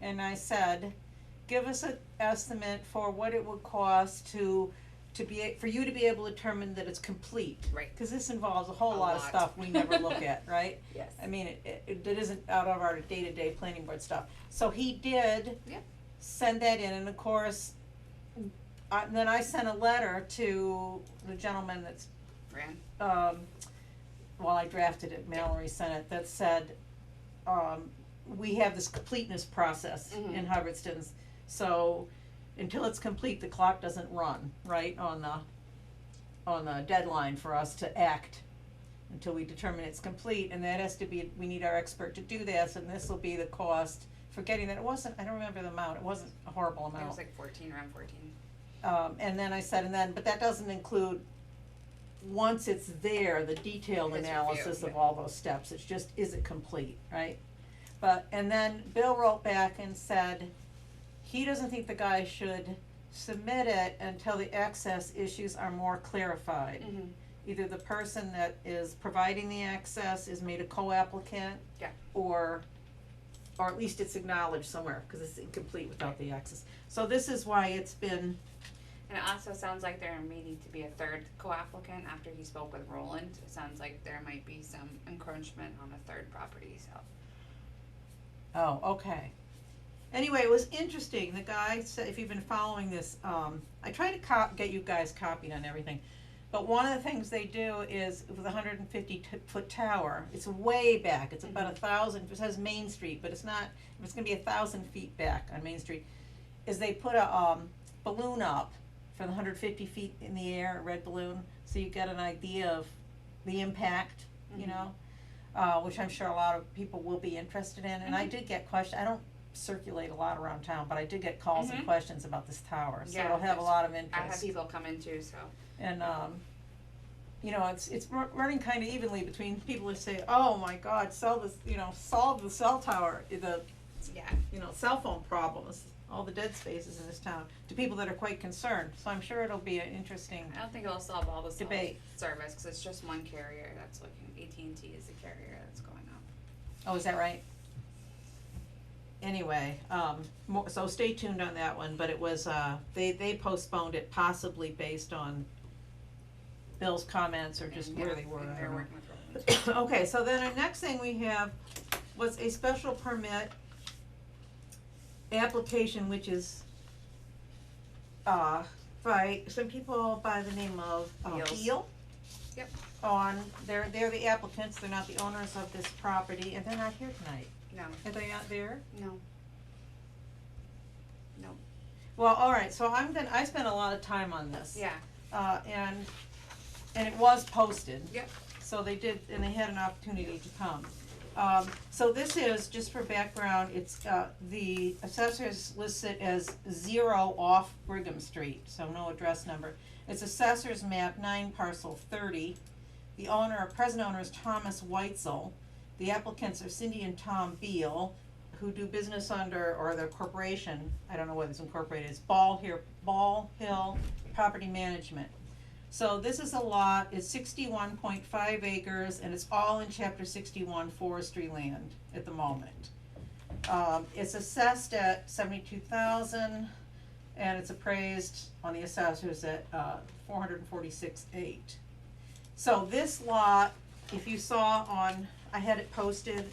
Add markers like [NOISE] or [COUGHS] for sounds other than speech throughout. and I said, give us an estimate for what it would cost to, to be, a- for you to be able to determine that it's complete. Right. Cause this involves a whole A lot of lot. stuff we never look [LAUGHS] at, right? Yes. I mean, it- it, it, that isn't out of our day-to-day planning board stuff. So he did. Yep. Send that in, and of course, I, then I sent a letter to the gentleman that's, Fran, um, well, I drafted it, Mallory sent it, that said, um, we have this completeness process in Mhm. Hubbardston's. So until it's complete, the clock doesn't run, right, on the, on the deadline for us to act until we determine it's complete, and that has to be, we need our expert to do this, and this will be the cost for getting that. It wasn't, I don't remember the amount, it wasn't a horrible it amount. was like fourteen, around fourteen. Um, and then I said, and then, but that doesn't include, once it's there, the detailed His review, analysis of yeah. all those steps, it's just, is it complete, right? But, and then Bill wrote back and said, he doesn't think the guy should submit it until the access issues are more clarified. Mm. Either the person that is providing the access is made a co-applicant. Yeah. Or, or at least it's acknowledged somewhere, cause it's incomplete without the access. So this is why it's been And it also sounds like there may need to be a third co-applicant after he spoke with Roland. It sounds like there might be some encroachment on a third property, so. Oh, okay. Anyway, it was interesting, the guy said, if you've been following this, um, I try to cop, get you guys copied on everything. But one of the things they do is with a hundred and fifty t- foot tower, it's way back, it's about a thousand, it says Main Street, but it's not, it's gonna be a thousand feet back on Main Street. Is they put a, um, balloon up from the hundred fifty feet in the air, a red balloon, so you get an idea of the impact, you Mhm. know? uh, which I'm sure a lot of people will be interested in, and I Mhm. did get questions, I don't circulate a lot around town, but I did get calls and Mhm. questions about this tower, so Yeah, it'll have a there's- lot of I had interest. people come in too, so. And, um, you know, it's, it's ru- running kinda evenly between people who say, oh my god, sell this, you know, solve the cell tower, the, Yeah. you know, cell phone problems, all the dead spaces in this town, to people that are quite concerned, so I'm sure it'll be an interesting, I don't think it'll solve all the cell Debate. service, cause it's just one carrier that's looking, AT&T is the carrier that's going up. oh, is that right? Anyway, um, mo- so stay tuned on that one, but it was, uh, they, they postponed it possibly based on Bill's comments or just And, where yeah, they were, I and don't they're know. working with Roland. [COUGHS] Okay, so then our next thing we have was a special permit application, which is uh by some people by the name of uh, Beals. Beal. Yep. On, they're they're the applicants, they're not the owners of this property, and they're not here tonight. No, Are they out there? no. Well, all right, so I'm gonna, I spent a lot of time on this. Yeah, Uh and and it was posted. Yep. So they did, and they had an opportunity to come. Um so this is, just for background, it's uh the assessors listed as zero off Brigham Street, so no address number. It's assessors map nine parcel thirty. The owner, present owner is Thomas Weitzel. The applicants are Cindy and Tom Beal, who do business under, or their corporation, I don't know whether it's incorporated, it's Ball here, Ball Hill Property Management. So this is a lot, it's sixty-one point five acres, and it's all in chapter sixty-one forestry land at the moment. Um, it's assessed at seventy-two thousand, and it's appraised on the assessors at, uh, four hundred and forty-six eight. So this lot, if you saw on, I had it posted,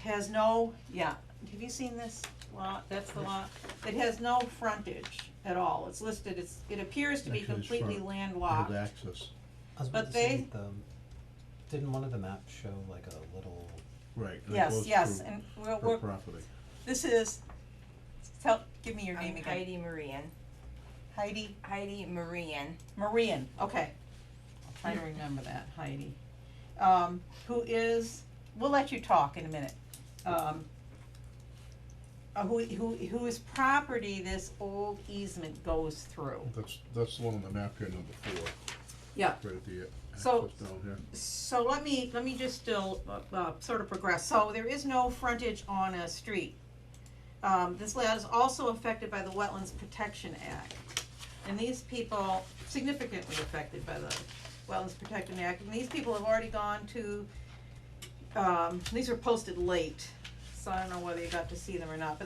has no, yeah, have you seen this lot? That's the lot. It has no frontage at all. It's listed, it's, it appears to be Actually, it's front. completely landlocked. Have access, I But was about to they- say, the, didn't one of the maps show like a little, right, and it Yes, goes yes, through and we're, her we're, property. this is, tell, give me your name I'm again. Heidi Marian. Heidi Heidi Marian. Marian, okay. I'll try to remember that, Heidi. Um, who is, we'll let you talk in a minute. Um, uh, who, who, whose property this old easement goes through. That's, that's the one on the map here, number four. Yeah. Right at the uh, access So- down here. So let me, let me just still, uh, uh, sort of progress, so there is no frontage on a street. Um, this land is also affected by the Wetlands Protection Act. And these people, significantly affected by the Wetlands Protection Act, and these people have already gone to, um, these were posted late, so I don't know whether you got to see them or not, but